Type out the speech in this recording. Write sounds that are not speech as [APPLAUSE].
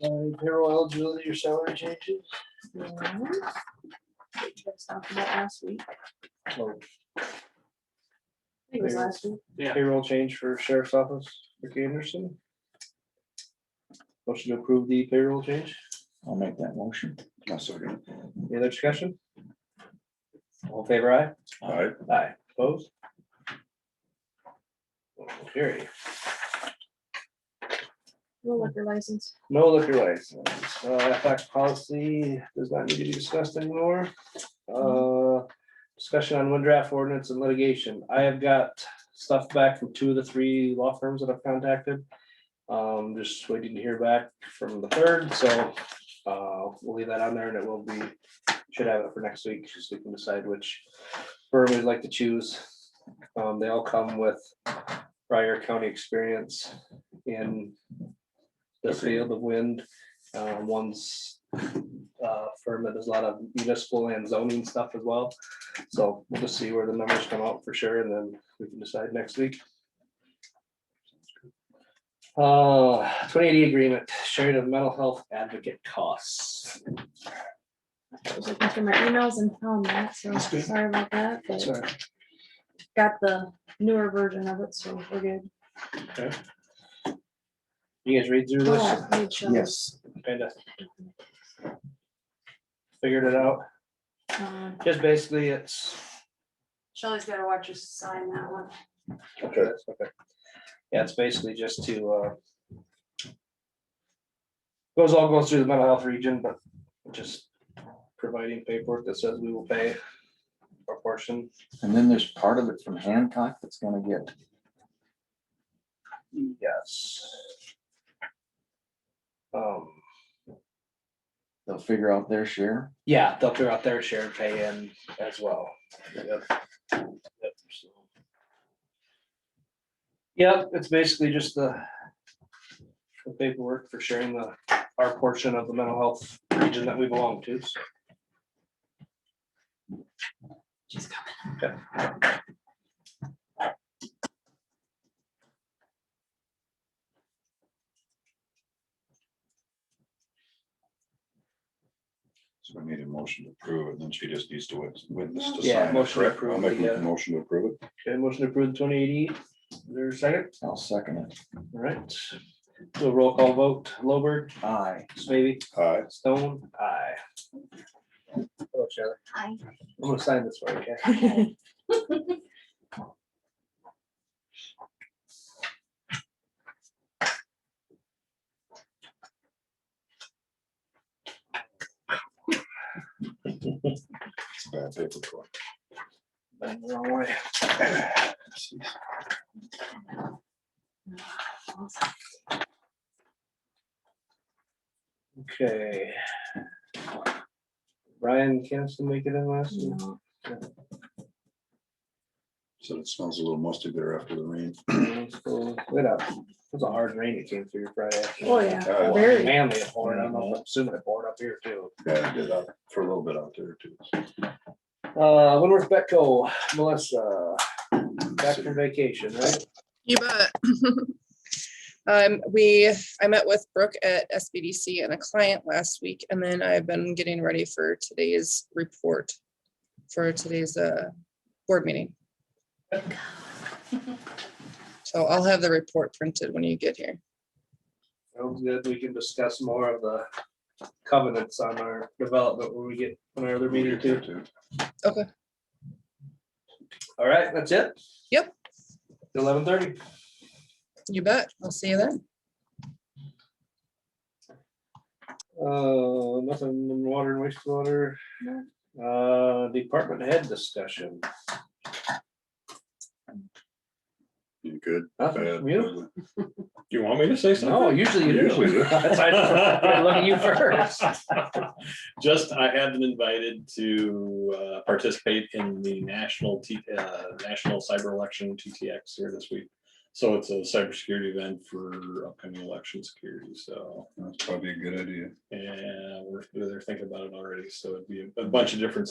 Any Uh, payroll eligibility or salary changes? No. We just talked about last week. Or I think it was last week. Yeah. Payroll change for sheriff's office, Rick Anderson? Motion to approve the payroll change, I'll make that motion. I'll second. any other discussion? All in favor aye. All right, Aye, opposed? Carry. We'll look your license. No liquor license, uh, FX policy does not need to be discussed anymore. Uh, discussion on wind draft ordinance and litigation. I have got stuff back from two of the three law firms that I've contacted. Um, just waiting to hear back from the third, so, uh, we'll leave that on there and it will be, should have it for next week, just we can decide which firm we'd like to choose. Um, they all come with prior county experience in the field of wind. Uh, one's uh, firm that does a lot of municipal and zoning stuff as well. So we'll just see where the numbers come out for sure, and then we can decide next week. Uh, twenty eighty agreement, sharing of mental health advocate costs. I was looking through my emails and found that, so That's good. sorry about that. but Sorry. Got the newer version of it, so we're good. You guys read through this, Oh, made sure, Yes. kind of figured it out, um, just basically it's Shelley's gotta watch us sign that one. Okay, that's okay. Yeah, it's basically just to, uh. Goes all goes through the mental health region, but just providing paperwork that says we will pay a portion. And then there's part of it from Hancock that's gonna get, Yes. Um, they'll figure out their share. yeah, they'll figure out their share and pay in as well. Yep. Yep, so. Yep, it's basically just the. The paperwork for sharing the, our portion of the mental health region that we belong to, so. She's coming. so we need a motion to approve it, then she just needs to wit- witness to Yeah, sign it, motion to correct? I'll approve, uh, make yeah. a motion to approve it. Okay, motion to approve the twenty eighty, there a second, I'll second it. all right. So roll call vote, Lowberg, Aye. Smithy, Aye. Stone, aye. Oh, Shelley, Hi. I'm gonna sign this for you, okay? it's a bad paper trail. Bend the wrong way. Okay. Brian Kinnison make it in last week? No, Said it smells a little musty there after the rain. So, Wait up, it was a hard rain that came through Friday. Oh, yeah, Uh, very. Manly it poured, I'm assuming it poured up here too. Yeah, I did that for a little bit out there too. Uh, Winworth Betco, Melissa, back from vacation, right? You bet. [LAUGHS] Um, we, I met with Brooke at SBDC and a client last week, and then I've been getting ready for today's report for today's, uh, board meeting. So I'll have the report printed when you get here. Sounds good. We can discuss more of the covenants on our development when we get on our other meeting too. Okay. All right, that's it? Yep. Eleven thirty. You bet. I'll see you then. Uh, nothing in water and wastewater. No. Uh, department head discussion. You good? Nothing from you? you want me to say No, usually you Usually do. Uh, [LAUGHS] do. That's why I Look at [LAUGHS] you first. Just, I have been invited to uh, participate in the national, T- uh, national cyber election TTX here this week. So it's a cybersecurity event for upcoming election security, so, That's probably a good idea. and we're, they're thinking about it already, so it'd be a a bunch of different